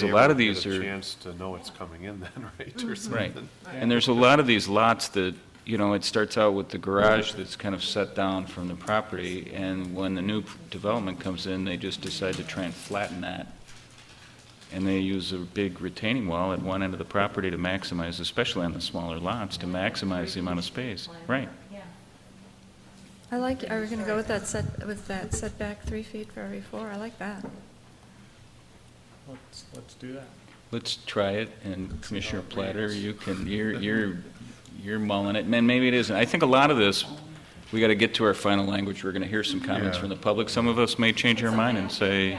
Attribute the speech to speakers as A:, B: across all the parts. A: So a
B: They
A: lot
B: won't
A: of
B: get
A: these
B: a
A: are,
B: Chance to know it's coming in then, right, or
A: right.
B: something?
A: And there's a lot of these lots that, you know, it starts out with the garage that's kind of set down from the property, and when the new development comes in, they just decide to try and flatten that. And they use a big retaining wall at one end of the property to maximize, especially on the smaller lots, to maximize the amount of space. Right.
C: I like, are we going to go with that set, with that setback three feet for every four? I like that.
D: Let's, let's do that.
A: Let's try it, and Commissioner Platter, you can, you're, you're, you're mulling it, and maybe it isn't. I think a lot of this, we got to get to our final language, we're going to hear some comments
B: Yeah.
A: from the public. Some of us may change our mind and say,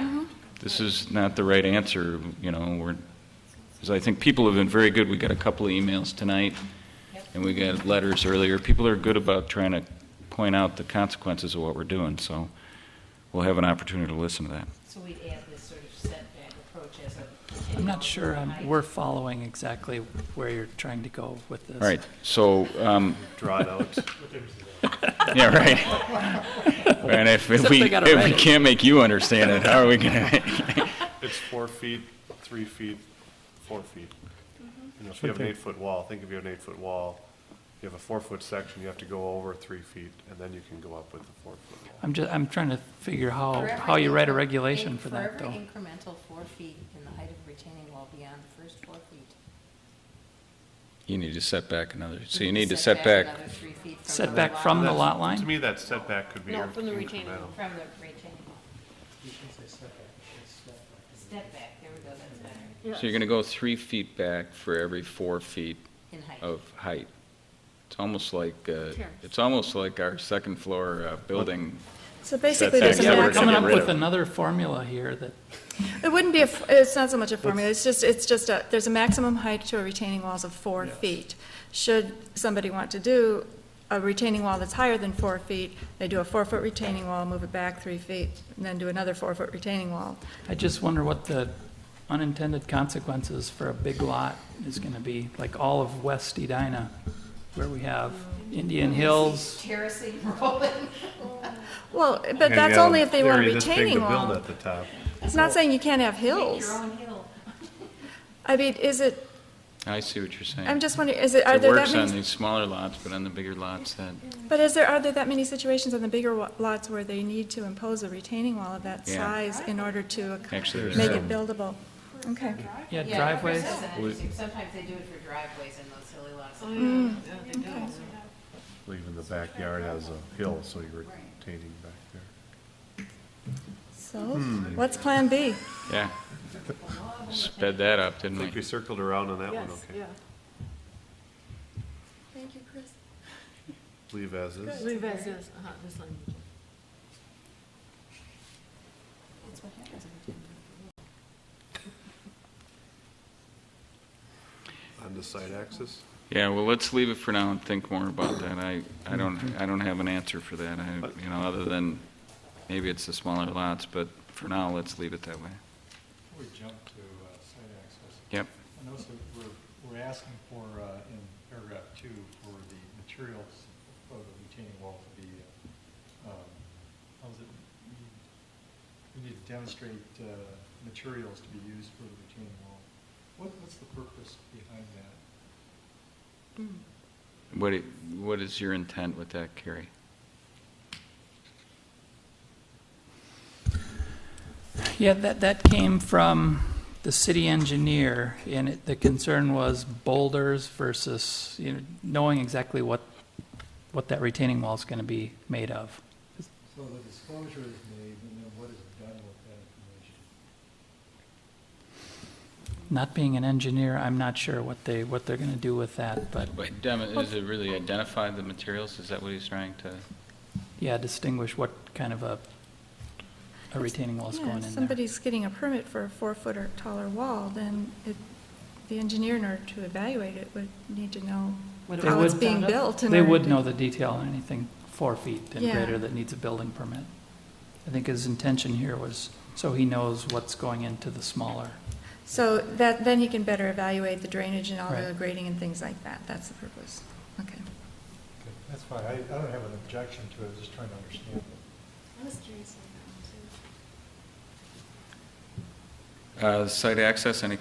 A: this is not the right answer, you know, we're, because I think people have been very good, we got a couple of emails tonight, and we got letters earlier. People are good about trying to point out the consequences of what we're doing, so we'll have an opportunity to listen to that.
E: So we'd add this sort of setback approach as a.
D: I'm not sure um, I'm- we're following exactly where you're trying to go with this.
A: All right, so, um,
B: Draw it out.
A: Yeah, right. And if if
D: Except
A: we,
D: they gotta
A: if
D: write
A: we
D: it.
A: can't make you understand it, how are we gonna?
B: It's four feet, three feet, four feet.
E: Mm-hmm.
B: You know, if you have an eight-foot wall, think if you have an eight-foot wall, you have a four-foot section, you have to go over three feet, and then you can go up with the four-foot wall.
D: I'm just, I'm trying to figure how, how you write a regulation for that,
E: For
D: though.
E: every incremental four feet in the height of retaining wall beyond the first four feet.
A: You need to set back another, so you
E: we
A: need to
E: could
A: set back,
E: Another three feet from the.
D: Setback from the
B: That's-
D: lot
B: To
D: line?
B: me, that setback could be
E: No, from the retaining,
B: incremental.
E: from the retaining wall. Step back, there we go, that's better,
A: so you're gonna go three feet back for every four feet
E: in height.
A: of height. It's almost like, uh, it's almost like our second floor uh, building.
C: So basically,
A: Setback,
C: there's a
A: yeah, we're
D: We're
A: gonna
D: coming up
C: maximum.
A: rid of
D: with
A: it.
D: another formula here that,
C: It wouldn't be, a f- it's not so much a formula, it's just, it's just a, there's a maximum height to a retaining walls of four feet. Should somebody want to do a retaining wall that's higher than four feet, they do a four-foot retaining wall, move it back three feet, and then do another four-foot retaining wall.
D: I just wonder what the unintended consequences for a big lot is gonna be, like all of West Edina, where we have Indian Hills,
E: Terracing, rolling.
C: Well, but
B: And
C: that's
B: you have
C: only if they want a
B: area this big to
C: retaining
B: Build
C: wall.
B: at the top.
C: It's not saying you can't have
E: Make
C: hills.
E: your own hill.
C: I mean, is it,
A: I see what you're saying.
C: I'm just wondering, is it, are
A: It
C: there
A: works
C: that
A: on
C: many
A: these smaller lots, but on the bigger lots, that,
C: But is there, are there that many situations on the bigger wa- lots where they need to impose a retaining wall of that
A: Yeah.
C: size in order to ac-
A: actually, there's
C: make
A: some.
C: it buildable? Okay.
E: Yeah,
D: yeah,
E: Parker
D: driveways.
E: says that,
A: We-
E: Sometimes they do it for driveways in those silly lots.
C: Hmm.
B: Leaving the backyard as a hill, so you're retaining back there.
C: So, what's Plan B?
A: yeah. Sped that up,
B: I
A: didn't
B: think we
A: we?
B: circled around on that one, okay.
C: Thank you, Chris.
B: Leave as is.
F: Leave as is, uh-huh, this language.
E: That's what happens every time.
B: On the side axis.
A: Yeah, well, let's leave it for now and think more about that. I, I don't, I don't have an answer for that, I, you know, other than maybe it's the smaller lots, but for now, let's leave it that way.
G: Before we jump to uh, site access,
A: Yep.
G: I notice that we're, we're asking for, uh, in paragraph two, for the materials of the retaining wall to be, uh, um, how is it? We- We need to demonstrate uh, materials to be used for the retaining wall. What, what's the purpose behind that?
A: What, i- what is your intent with that, Carrie?
D: Yeah, that, that came from the city engineer, and it, the concern was boulders versus, you know, knowing exactly what, what that retaining wall is gonna be made of.
G: So the disclosure is made, and then what is done with that information?
D: Not being an engineer, I'm not sure what they, what they're gonna do with that, but,
A: But dem- is it really identify the materials? Is that what he's trying to?
D: yeah, distinguish what kind of a, a retaining wall's
C: Yeah,
D: going
C: if
D: in there.
C: somebody's getting a permit for a four-foot or taller wall, then it, the engineer, in order to evaluate it, would need to know
D: They
C: how it's
D: would-
C: being built. in
D: They
C: order
D: would
C: to-
D: know the detail on anything four feet and
C: Yeah.
D: greater that needs a building permit. I think his intention here was, so he knows what's going into the smaller.
C: So that, then he can better evaluate the drainage and all the
D: Right.
C: grading and things like that. That's the purpose. Okay.
G: Okay, That's fine, I, I don't have an objection to it, I'm just trying to understand it.
F: I was curious on that one, too.
A: Uh, Site access, any